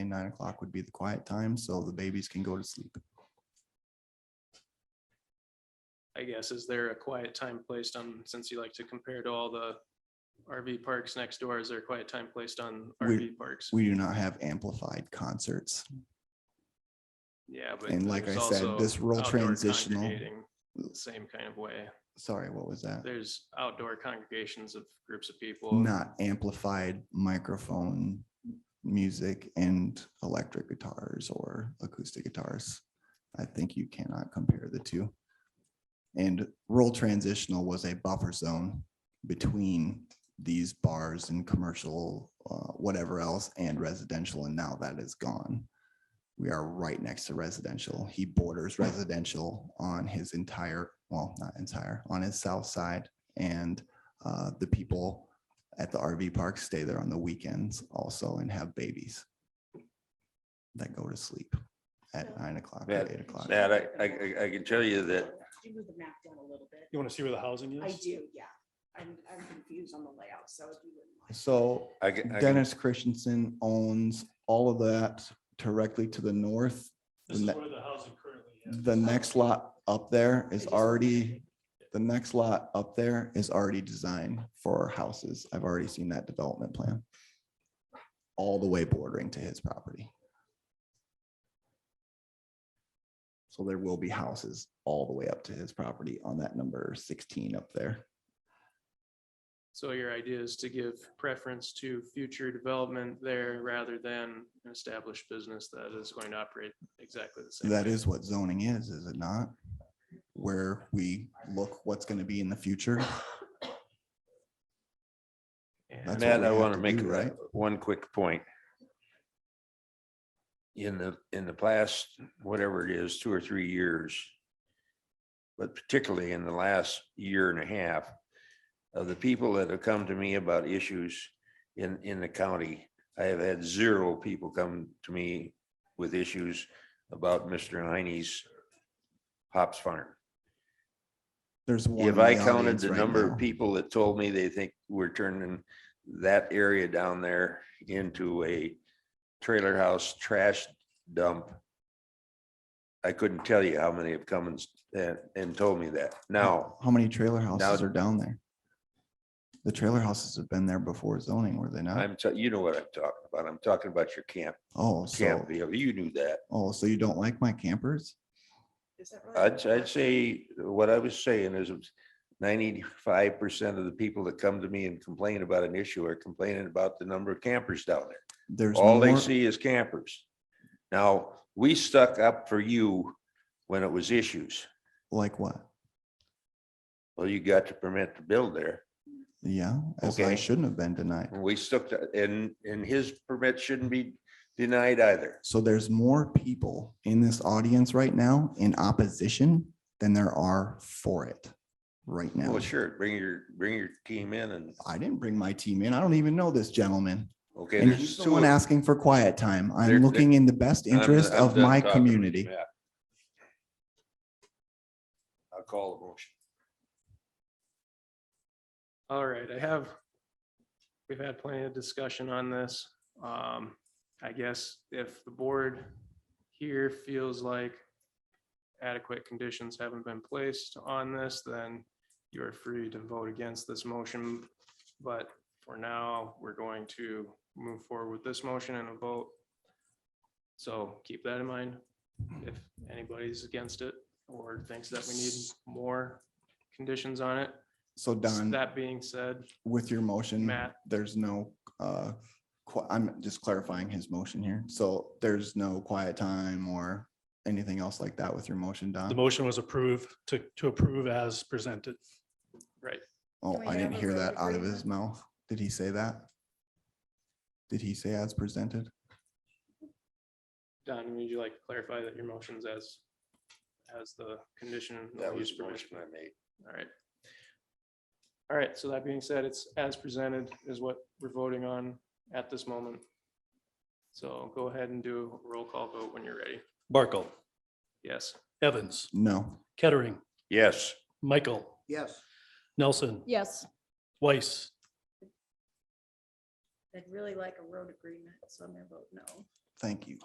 nine o'clock would be the quiet time, so the babies can go to sleep. I guess, is there a quiet time placed on, since you like to compare to all the RV parks next door, is there a quiet time placed on We- RV parks? We do not have amplified concerts. Yeah, but. and like there's I said, also this role outdoor transitional- congregating the Same kind of way. Sorry, what was that? There's outdoor congregations of groups of people. Not amplified microphone music and electric guitars or acoustic guitars. I think you cannot compare the two. And rural transitional was a buffer zone between these bars and commercial, uh, whatever else, and residential, and now that is gone. We are right next to residential. He borders residential on his entire, well, not entire, on his south side. And uh, the people at the RV park stay there on the weekends also and have babies that go to sleep at nine o'clock or That- eight o'clock. That I, I, I- I can tell you that Could You move the map down a little bit. You want to see where the housing is? I do, yeah. I'm, I'm confused on the layout, so if you wouldn't mind. So I can, I can- Dennis Christensen owns all of that directly to the north. This is Ne- where the housing currently is. The next lot up there is I just- already, the next lot up there is already designed for houses. I've already seen that development plan. All the way bordering to his property. So there will be houses all the way up to his property on that number sixteen up there. So your idea is to give preference to future development there rather than an established business that is going to operate exactly the same. That way. is what zoning is, is it not? Where we look what's gonna be in the future. that's And- what Matt, we I have want to to make do, right? one quick point. In the, in the past, whatever it is, two or three years, but particularly in the last year and a half, of the people that have come to me about issues in, in the county, I have had zero people come to me with issues about Mr. Heine's hops farm. There's one. If in I the counted audience the right number now. of people that told me they think we're turning that area down there into a trailer house trash dump. I couldn't tell you how many have come and, s- and, and told me that. Now, How many trailer houses are down there? The trailer houses have been there before zoning, were they not? I'm, t- you know what I'm talking about. I'm talking about your camp, Oh, so, camp deal. You knew that. oh, so you don't like my campers? Is that right? I'd, I'd say, what I was saying is ninety-five percent of the people that come to me and complain about an issue are complaining about the number of campers down there. There's. All they more- see is campers. Now, we stuck up for you when it was issues. Like what? Well, you got to permit to build there. Yeah, as I Okay. shouldn't have been denied. And we stuck to, and, and his permit shouldn't be denied either. So there's more people in this audience right now in opposition than there are for it right now. Well, sure, bring your, bring your team in and, I didn't bring my team in. I don't even know this gentleman. okay. And there's he's the two one of- asking for quiet time. There- I'm there- looking in the best I'm- interest I'm of done my talking, community. Matt. I'll call the motion. All right, I have, we've had plenty of discussion on this. Um, I guess if the board here feels like adequate conditions haven't been placed on this, then you're free to vote against this motion. But for now, we're going to move forward with this motion and a vote. So keep that in mind. If anybody's against it or thinks that we need more conditions on it, So Don. that being said, with your motion, Matt. there's no, uh, qui- I'm just clarifying his motion here. So there's no quiet time or anything else like that with your motion, The Don? motion was approved to, to approve as presented. Oh, Do we I didn't have a hear road that out of agreement? his mouth. Did he say that? Did he say as presented? Don, would you like to clarify that your motion's as, as the condition? of That was use the permission? motion I made. All right. All right, so that being said, it's as presented is what we're voting on at this moment. So go ahead and do a roll call vote when you're ready. Barkle, Yes, Evans, No, Kettering, Yes, Michael, Yes. Nelson, Yes, Weiss, I'd really like a road agreement, so I'm gonna vote no. Thank you.